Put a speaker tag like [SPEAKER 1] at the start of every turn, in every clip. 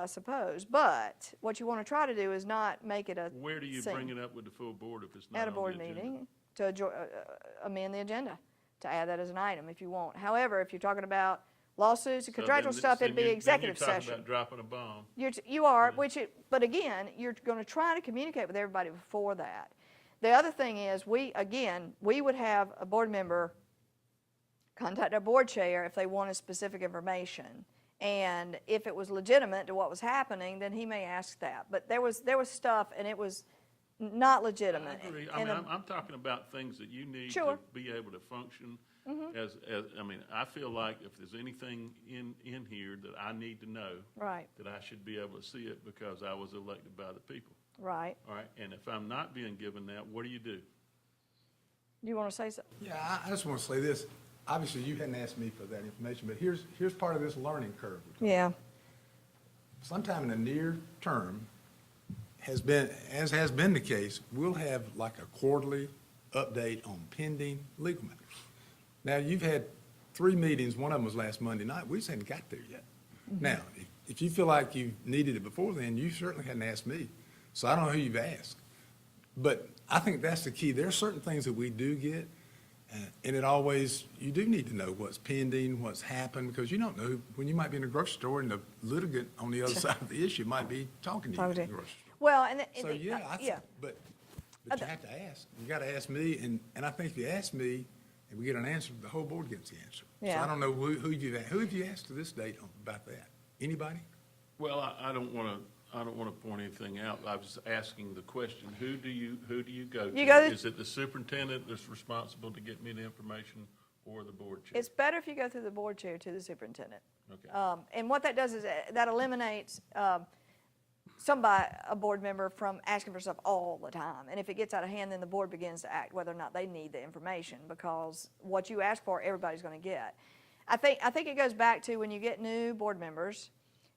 [SPEAKER 1] I suppose, but what you want to try to do is not make it a.
[SPEAKER 2] Where do you
[SPEAKER 1] sing-
[SPEAKER 2] bring it up with the full board if it's not
[SPEAKER 1] At a
[SPEAKER 2] on the
[SPEAKER 1] board
[SPEAKER 2] agenda?
[SPEAKER 1] meeting to adjo- uh, uh, amend the agenda, to add that as an item if you want. However, if you're talking about lawsuits and
[SPEAKER 2] So then
[SPEAKER 1] contractual
[SPEAKER 2] th-
[SPEAKER 1] stuff,
[SPEAKER 2] then
[SPEAKER 1] it'd be
[SPEAKER 2] you- then you
[SPEAKER 1] executive
[SPEAKER 2] talk
[SPEAKER 1] session.
[SPEAKER 2] about dropping a bomb.
[SPEAKER 1] You're, t- you are, which it, but again, you're going to try to communicate with everybody before that. The other thing is, we, again, we would have a board member contact our board chair if they wanted specific information. And if it was legitimate to what was happening, then he may ask that. But there was, there was stuff and it was n- not
[SPEAKER 2] I
[SPEAKER 1] legitimate.
[SPEAKER 2] agree. I
[SPEAKER 1] Uh, And
[SPEAKER 2] mean,
[SPEAKER 1] the-
[SPEAKER 2] I'm, I'm talking about things that you need
[SPEAKER 1] Sure. Mm-hmm.
[SPEAKER 2] to be able to function as, as, I mean, I feel like if there's anything in, in here that I need to know,
[SPEAKER 1] Right,
[SPEAKER 2] that I should be able to see it because I was elected by the people,
[SPEAKER 1] right.
[SPEAKER 2] all right? And if I'm not being given that, what do you do?
[SPEAKER 1] You want to say something?
[SPEAKER 3] Yeah, I, I just want to say this. Obviously, you hadn't asked me for that information, but here's, here's part of this learning curve.
[SPEAKER 1] Yeah,
[SPEAKER 3] Sometime in the near term, has been, as has been the case, we'll have like a quarterly update on pending legal matters. Now, you've had three meetings, one of them was last Monday night, we just hadn't got there yet. Now, if- if you feel like you needed it before then, you certainly hadn't asked me, so I don't know who you've asked. But I think that's the key. There are certain things that we do get, uh, and it always, you do need to know what's pending, what's happened, because you don't know, when you might be in a grocery store and the litigant on the other side of the issue might be talking to you in
[SPEAKER 1] talk
[SPEAKER 3] the
[SPEAKER 1] to-
[SPEAKER 3] grocery store.
[SPEAKER 1] well, and. the- and
[SPEAKER 3] So,
[SPEAKER 1] the- uh,
[SPEAKER 3] yeah, I, th-
[SPEAKER 1] Yeah,
[SPEAKER 3] but, but you have to ask. You gotta ask me, and, and I think if you ask me, and we get an answer, the whole board gets the answer. So
[SPEAKER 1] Yeah.
[SPEAKER 3] I don't know who, who you've, a- who have you asked to this date on- about that? Anybody?
[SPEAKER 2] Well, I, I don't wanna, I don't wanna point anything out. I was asking the question, who do you, who do you go to?
[SPEAKER 1] You go to-
[SPEAKER 2] Is it the superintendent that's responsible to get me the information or the board chair?
[SPEAKER 1] it's better if you go through the board chair to the superintendent.
[SPEAKER 2] Okay.
[SPEAKER 1] Um, And what that does is uh, that eliminates um, somebody, a board member, from asking for stuff all the time. And if it gets out of hand, then the board begins to act whether or not they need the information because what you ask for, everybody's going to get. I think, I think it goes back to when you get new board members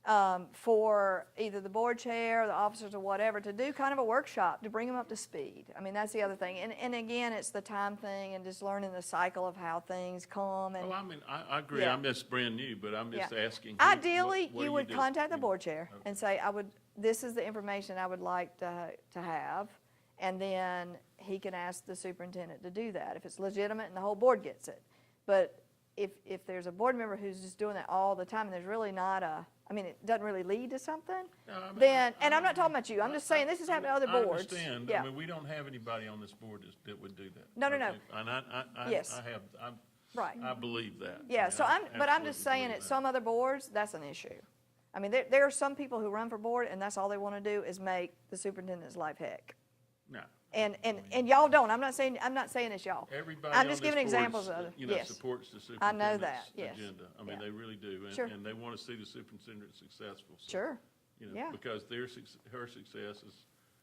[SPEAKER 1] um, for either the board chair, or the officers or whatever, to do kind of a workshop to bring them up to speed. I mean, that's the other thing. And, and again, it's the time thing and just learning the cycle of how things come and.
[SPEAKER 2] Well, I mean, I, I agree,
[SPEAKER 1] Yeah.
[SPEAKER 2] I'm just brand new, but I'm just
[SPEAKER 1] Yeah.
[SPEAKER 2] asking. who- what-
[SPEAKER 1] Ideally,
[SPEAKER 2] what do
[SPEAKER 1] you would
[SPEAKER 2] do?
[SPEAKER 1] contact the
[SPEAKER 2] You-
[SPEAKER 1] board chair and say, I would, this is the information I would like to, to have. And then he can ask the superintendent to do that if it's legitimate and the whole board gets it. But if, if there's a board member who's just doing that all the time and there's really not a, I mean, it doesn't really lead to something,
[SPEAKER 2] No, I mean,
[SPEAKER 1] then,
[SPEAKER 2] I-
[SPEAKER 1] and
[SPEAKER 2] I
[SPEAKER 1] I'm not
[SPEAKER 2] don't-
[SPEAKER 1] talking about you, I'm just
[SPEAKER 2] I-
[SPEAKER 1] saying this has
[SPEAKER 2] I-
[SPEAKER 1] happened to other boards.
[SPEAKER 2] I understand,
[SPEAKER 1] Yeah.
[SPEAKER 2] I mean, we don't have anybody on this board that's- that would do that.
[SPEAKER 1] No, no, no.
[SPEAKER 2] okay? And I, I, I,
[SPEAKER 1] Yes.
[SPEAKER 2] I have, I.
[SPEAKER 1] Right.
[SPEAKER 2] I believe that.
[SPEAKER 1] Yeah,
[SPEAKER 2] I
[SPEAKER 1] so I'm, but I'm just
[SPEAKER 2] absolutely
[SPEAKER 1] saying,
[SPEAKER 2] believe
[SPEAKER 1] at
[SPEAKER 2] that.
[SPEAKER 1] some other boards, that's an issue. I mean, there, there are some people who run for board, and that's all they want to do is make the superintendent's life heck.
[SPEAKER 2] No.
[SPEAKER 1] And, and, and y'all don't, I'm not saying, I'm not saying it's y'all.
[SPEAKER 2] Everybody on
[SPEAKER 1] I'm
[SPEAKER 2] this
[SPEAKER 1] just
[SPEAKER 2] board,
[SPEAKER 1] giving examples
[SPEAKER 2] is,
[SPEAKER 1] of
[SPEAKER 2] uh,
[SPEAKER 1] other-
[SPEAKER 2] you know,
[SPEAKER 1] yes.
[SPEAKER 2] supports the
[SPEAKER 1] I know
[SPEAKER 2] superintendent's
[SPEAKER 1] that, yes.
[SPEAKER 2] agenda. I mean,
[SPEAKER 1] Yeah.
[SPEAKER 2] they really do.
[SPEAKER 1] Sure.
[SPEAKER 2] And, and they want to see the superintendent successful. so,
[SPEAKER 1] Sure.
[SPEAKER 2] You
[SPEAKER 1] Yeah.
[SPEAKER 2] know, because their, suc- her success is,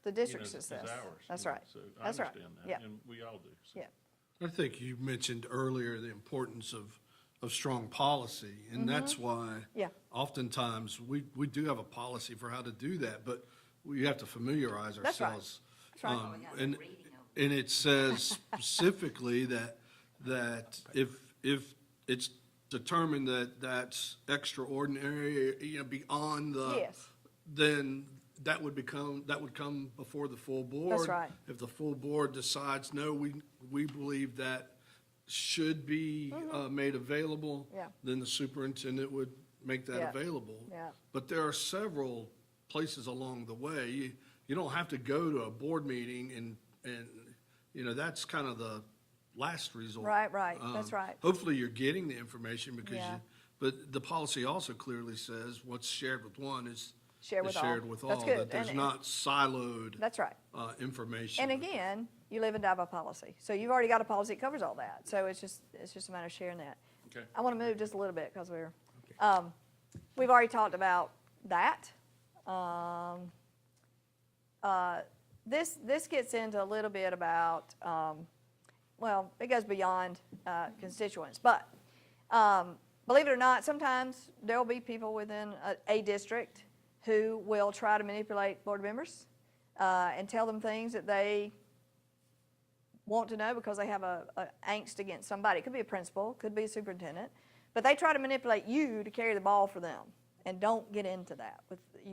[SPEAKER 1] The
[SPEAKER 2] you know,
[SPEAKER 1] district's
[SPEAKER 2] is ours.
[SPEAKER 1] success.
[SPEAKER 2] you
[SPEAKER 1] That's
[SPEAKER 2] know,
[SPEAKER 1] right.
[SPEAKER 2] So I
[SPEAKER 1] That's right.
[SPEAKER 2] understand
[SPEAKER 1] Yeah,
[SPEAKER 2] that, and we all do. so.
[SPEAKER 1] yeah,
[SPEAKER 4] I think you mentioned earlier the importance of, of strong policy, and that's why
[SPEAKER 1] Mm-hmm. Yeah.
[SPEAKER 4] oftentimes we, we do have a policy for how to do that, but we have to familiarize
[SPEAKER 1] That's right.
[SPEAKER 4] ourselves.
[SPEAKER 1] That's right.
[SPEAKER 4] Um, And, and it says specifically that, that if, if it's determined that that's extraordinary, you know, beyond the
[SPEAKER 1] Yes.
[SPEAKER 4] then that would become, that would come before the full board.
[SPEAKER 1] right.
[SPEAKER 4] If the full board decides, no, we, we believe that should be uh, made available.
[SPEAKER 1] Mm-hmm. Yeah.
[SPEAKER 4] Then the superintendent would make
[SPEAKER 1] Yeah.
[SPEAKER 4] that available.
[SPEAKER 1] Yeah.
[SPEAKER 4] But there are several places along the way. You, you don't have to go to a board meeting and, and, you know, that's kind of the last resort.
[SPEAKER 1] Right, right. That's
[SPEAKER 4] Um,
[SPEAKER 1] right.
[SPEAKER 4] Hopefully you're getting the information because
[SPEAKER 1] Yeah.
[SPEAKER 4] you, but the policy also clearly says what's shared with one is.
[SPEAKER 1] Share
[SPEAKER 4] is
[SPEAKER 1] with all.
[SPEAKER 4] Shared with
[SPEAKER 1] That's
[SPEAKER 4] all,
[SPEAKER 1] good.
[SPEAKER 4] that there's
[SPEAKER 1] And-
[SPEAKER 4] not siloed.
[SPEAKER 1] that's right.
[SPEAKER 4] Uh, information.
[SPEAKER 1] And again, you live and die by policy. So you've already got a policy that covers all that. So it's just, it's just a matter of sharing that.
[SPEAKER 2] Okay.
[SPEAKER 1] I want to move just a little bit because we're, um, we've already talked about that. Um, uh, This, this gets into a little bit about, um, well, it goes beyond uh, constituents, but um, believe it or not, sometimes there'll be people within a, a district who will try to manipulate board members uh, and tell them things that they want to know because they have a, a angst against somebody. It could be a principal, could be a superintendent, but they try to manipulate you to carry the ball for them. And don't get into that with you.